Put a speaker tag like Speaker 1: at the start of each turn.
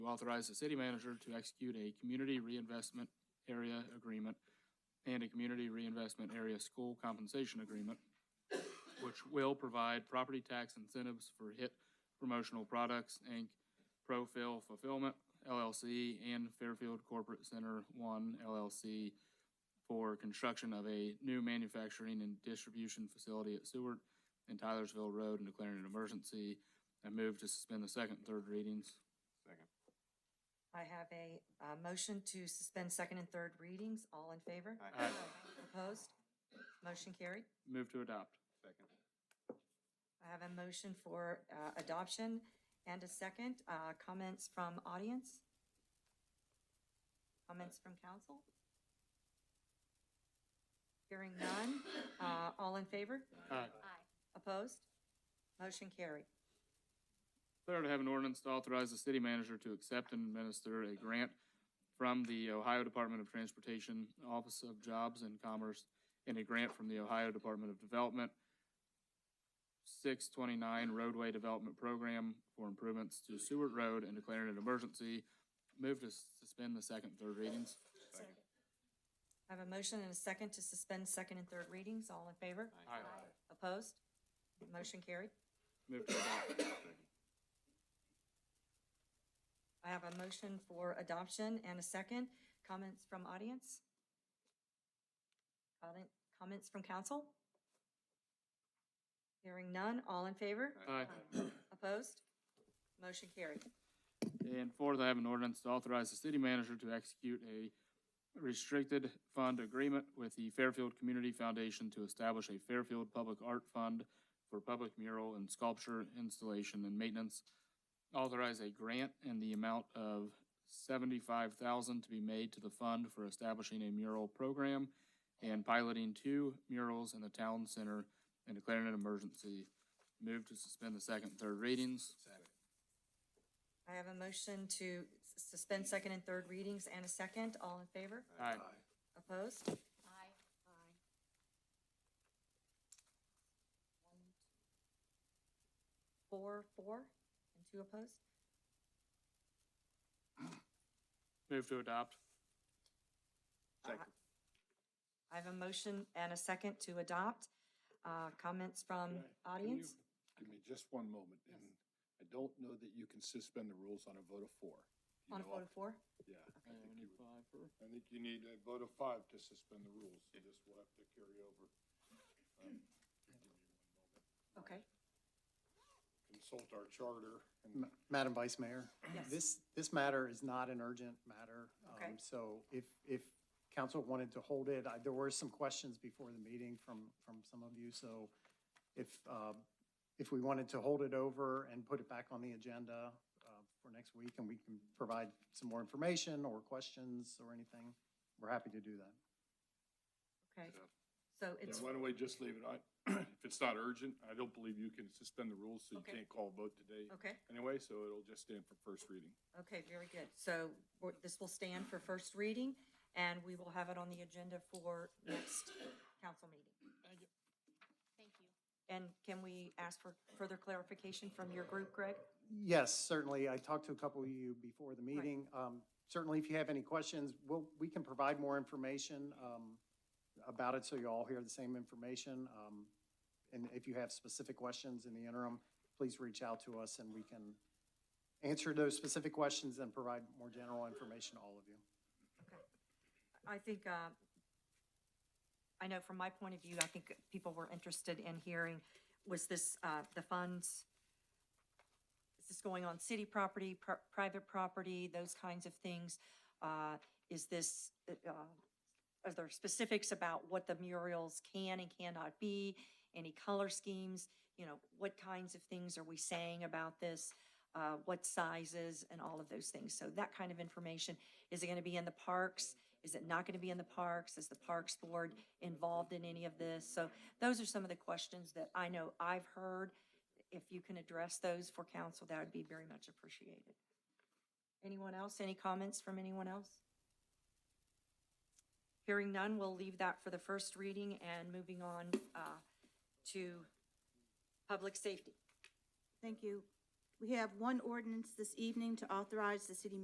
Speaker 1: authorize the city manager to execute a community reinvestment area agreement and a community reinvestment area school compensation agreement, which will provide property tax incentives for HIT Promotional Products, Inc., Profil Fulfillment LLC, and Fairfield Corporate Center One LLC for construction of a new manufacturing and distribution facility at Seward and Tylersville Road and declaring an emergency. I move to suspend the second and third readings.
Speaker 2: Second.
Speaker 3: I have a, uh motion to suspend second and third readings. All in favor?
Speaker 2: Aye.
Speaker 1: Aye.
Speaker 3: Opposed? Motion carried.
Speaker 1: Move to adopt.
Speaker 2: Second.
Speaker 3: I have a motion for, uh, adoption and a second, uh, comments from audience? Comments from council? Hearing none, uh, all in favor?
Speaker 1: Aye.
Speaker 3: Opposed? Motion carried.
Speaker 1: Third, I have an ordinance to authorize the city manager to accept and administer a grant from the Ohio Department of Transportation Office of Jobs and Commerce and a grant from the Ohio Department of Development six twenty-nine roadway development program for improvements to Seward Road and declaring an emergency. Move to suspend the second, and third readings.
Speaker 2: Second.
Speaker 3: I have a motion and a second to suspend second and third readings. All in favor?
Speaker 1: Aye.
Speaker 3: Opposed? Motion carried.
Speaker 1: Move to adopt.
Speaker 2: Second.
Speaker 3: I have a motion for adoption and a second. Comments from audience? Comment- Comments from council? Hearing none. All in favor?
Speaker 1: Aye.
Speaker 3: Opposed? Motion carried.
Speaker 1: And fourth, I have an ordinance to authorize the city manager to execute a restricted fund agreement with the Fairfield Community Foundation to establish a Fairfield Public Art Fund for public mural and sculpture installation and maintenance. Authorize a grant in the amount of seventy-five thousand to be made to the fund for establishing a mural program and piloting two murals in the town center and declaring an emergency. Move to suspend the second, and third readings.
Speaker 2: Second.
Speaker 3: I have a motion to s- suspend second and third readings and a second. All in favor?
Speaker 1: Aye.
Speaker 3: Opposed? Aye. Four, four, and two opposed?
Speaker 1: Move to adopt.
Speaker 2: Second.
Speaker 3: I have a motion and a second to adopt. Uh, Comments from
Speaker 4: Can I- can you
Speaker 3: audience?
Speaker 4: Give me just one moment, and I don't know that you can suspend the rules on a vote of four. Do you
Speaker 3: On a
Speaker 4: know
Speaker 3: vote of
Speaker 4: off-
Speaker 3: four?
Speaker 4: Yeah. I
Speaker 1: And
Speaker 4: think
Speaker 1: we
Speaker 4: you
Speaker 1: need
Speaker 4: would-
Speaker 1: five for-
Speaker 4: I think you need a vote of five to suspend the rules, so this will have to carry over. Um, give me one moment.
Speaker 3: Okay,
Speaker 4: Consult our charter
Speaker 5: Ma-
Speaker 4: and
Speaker 5: Madam Vice Mayor?
Speaker 3: Yes.
Speaker 5: This, this matter is not an urgent matter. um,
Speaker 3: Okay.
Speaker 5: So if, if council wanted to hold it, I- there were some questions before the meeting from, from some of you. So if, uh, if we wanted to hold it over and put it back on the agenda uh, for next week, and we can provide some more information or questions or anything, we're happy to do that.
Speaker 3: okay.
Speaker 4: Yeah.
Speaker 3: So
Speaker 4: Yeah,
Speaker 3: it's,
Speaker 4: why don't we just leave it on? If it's not urgent, I don't believe you can suspend the rules, so you
Speaker 3: Okay.
Speaker 4: can't call a vote today
Speaker 3: okay,
Speaker 4: anyway, so it'll just stand for first reading.
Speaker 3: okay, very good. So we're- this will stand for first reading, and we will have it on the agenda for next council meeting.
Speaker 6: Thank you.
Speaker 3: And can we ask for further clarification from your group, Greg?
Speaker 5: Yes, certainly. I talked to a couple of you before the meeting. Um, Certainly, if you have any questions, we'll, we can provide more information um, about it, so you all hear the same information. Um, And if you have specific questions in the interim, please reach out to us, and we can answer those specific questions and provide more general information to all of you.
Speaker 3: I think, uh, I know from my point of view, I think people were interested in hearing, was this, uh, the funds, is this going on city property, pri- private property, those kinds of things? Uh, Is this, uh, are there specifics about what the murals can and cannot be? Any color schemes? You know, what kinds of things are we saying about this? Uh, What sizes and all of those things? So that kind of information. Is it going to be in the parks? Is it not going to be in the parks? Is the Parks Board involved in any of this? So those are some of the questions that I know I've heard. If you can address those for council, that would be very much appreciated. Anyone else? Any comments from anyone else? Hearing none, we'll leave that for the first reading and moving on uh, to public safety.
Speaker 6: Thank you. We have one ordinance this evening to authorize the city